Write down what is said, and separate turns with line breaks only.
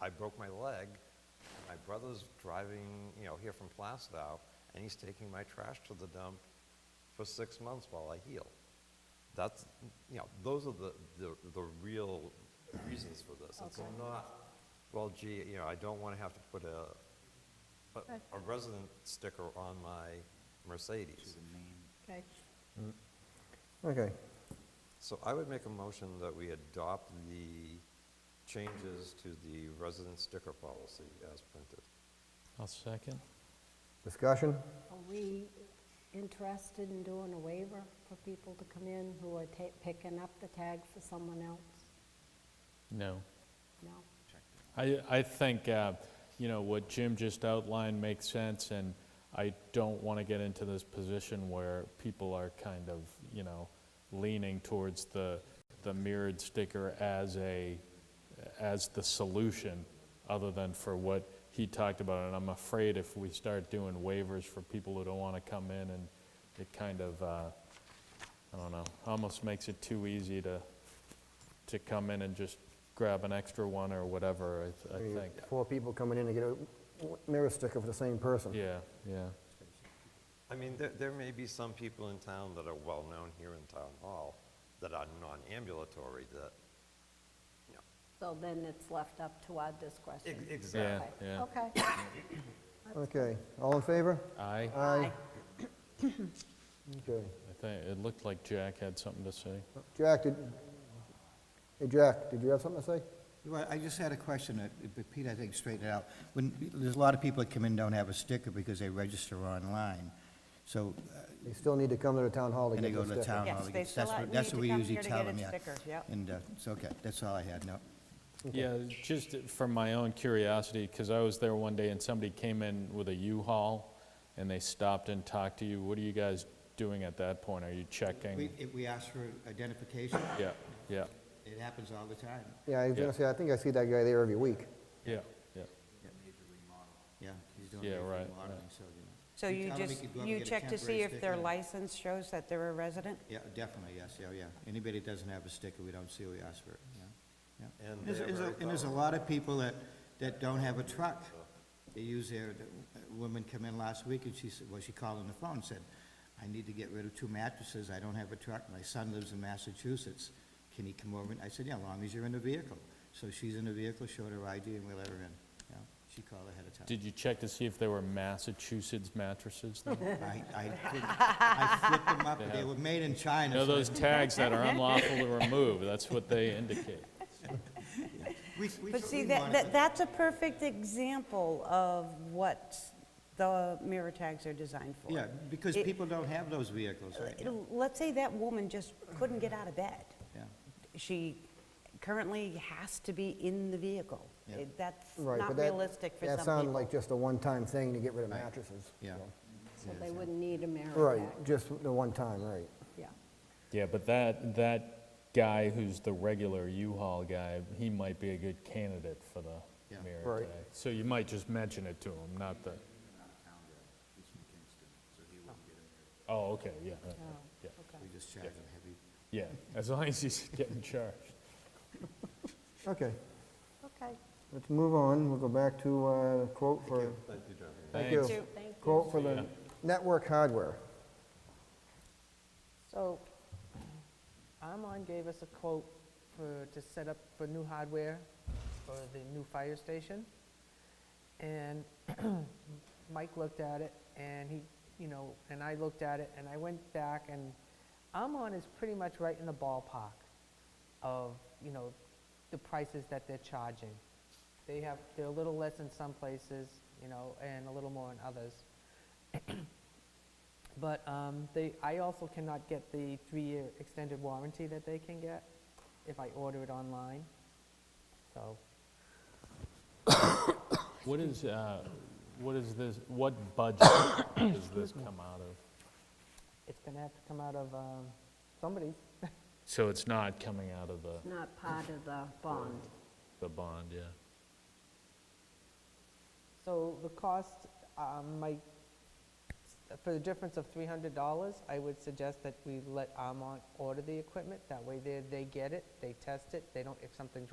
I broke my leg, and my brother's driving, you know, here from Plastow, and he's taking my trash to the dump for six months while I heal. That's, you know, those are the, the, the real reasons for this. It's
Okay.
not, well, gee, you know, I don't want to have to put a, a-
Okay.
a resident sticker on my Mercedes.
Okay,
Okay,
So I would make a motion that we adopt the changes to the resident sticker policy as printed.
I'll second.
discussion?
are we interested in doing a waiver for people to come in who are ta- picking up the tag for someone else?
No.
No?
I, I think, uh, you know, what Jim just outlined makes sense, and I don't want to get into this position where people are kind of, you know, leaning towards the, the mirrored sticker as a, as the solution, other than for what he talked about. And I'm afraid if we start doing waivers for people who don't want to come in, and it kind of, uh, I don't know, almost makes it too easy to, to come in and just grab an extra one or whatever, I th-
Mm.
I think.
Four people coming in to get a mirror sticker for the same person.
Yeah, yeah,
I mean, there, there may be some people in town that are well-known here in Town Hall that are non-ambulatory that, you know,
So then it's left up to our discretion?
ex- exactly.
yeah,
Okay.
yeah.
Okay.
Okay, all in favor?
Aye,
Aye. Okay.
I think, it looked like Jack had something to say.
Jack, did, hey, Jack, did you have something to say?
Well, I just had a question, that- but Pete, I think straightened it out. When, there's a lot of people that come in don't have a sticker because they register online, so, uh,
They still need to come to the town hall to
and they
get
go
the
to the
sticker.
town. hall
Yes,
to
they
get-
still
that's
ha-
what-
need
that's
to
what we
come
usually
here to
tell
get
them,
a
yeah.
sticker, yep.
And, uh, it's okay, that's all I had, no.
Yeah, just from my own curiosity, because I was there one day and somebody came in with a U-Haul and they stopped and talked to you. What are you guys doing at that point? Are you
We,
checking?
if we ask for identification,
Yeah, yeah,
it happens all the time,
Yeah, I was
Yeah.
gonna say, I think I see that guy there every week.
yeah, yeah.
yeah. he's doing
Yeah,
major
right, right.
remodeling, so, you know.
So
You
you
tell them
just,
could go up and
you
get a
check to see
temporary
if their
sticker.
license shows that they're a resident?
Yeah, definitely, yes, yeah, yeah. Anybody that doesn't have a sticker, we don't see, we ask for it, yeah, yeah.
And
There's-
they're
there's a-
very
And there's a
thorough.
lot of people that, that don't have a truck. They use their, the woman come in last week and she said, well, she called on the phone and said, I need to get rid of two mattresses, I don't have a truck, my son lives in Massachusetts. Can he come over? And I said, yeah, as long as you're in the vehicle. So she's in the vehicle, showed her ID and we let her in, yeah. She called ahead of time.
Did you check to see if they were Massachusetts mattresses? then? You
I, I, couldn't- I flipped them up, but they were made in China.
know
so
those tags that are unlawful to remove, that's what they indicate.
we- we-
But
we
see, that,
monitor
that that's a perfect example of what the mirror tags are designed for.
Yeah, because
It- Uh,
people don't have those vehicles right now,
It'll- Let's say that woman just couldn't get out of bed.
yeah.
She currently has to be in the vehicle.
Yeah.
It- That's
Right, but
not
that-
realistic for some
That
people.
sounded like just a one-time thing to get rid of
Right.
mattresses.
Yeah.
so.
So they wouldn't need a mirror
Right,
back.
just the one time, right.
Yeah.
Yeah, but that, that guy who's the regular U-Haul guy, he might be a good candidate for the
Yeah.
mayor
Right.
today. So you might just mention it to him, not the... Oh, okay, yeah, okay, yeah,
We just charge them heavy.
yeah, as long as he's getting charged.
Okay,
Okay.
let's move on, we'll go back to uh, quote for,
Thank you, Jennifer.
thank
Thanks.
you.
Thank you.
Quote for the network hardware.
So, Amon gave us a quote for, to set up for new hardware for the new fire station. And Mike looked at it, and he, you know, and I looked at it, and I went back, and Amon is pretty much right in the ballpark of, you know, the prices that they're charging. They have, they're a little less in some places, you know, and a little more in others. But um, they, I also cannot get the three-year extended warranty that they can get if I order it online. So
What is, uh, what is this, what budget does this come out of?
it's going to have to come out of um, somebody's.
So it's not coming out of the,
Not part of the bond.
the bond, yeah?
So the cost, um, my, for the difference of $300, I would suggest that we let Armont order the equipment. That way they, they get it, they test it, they don't, if something's wrong.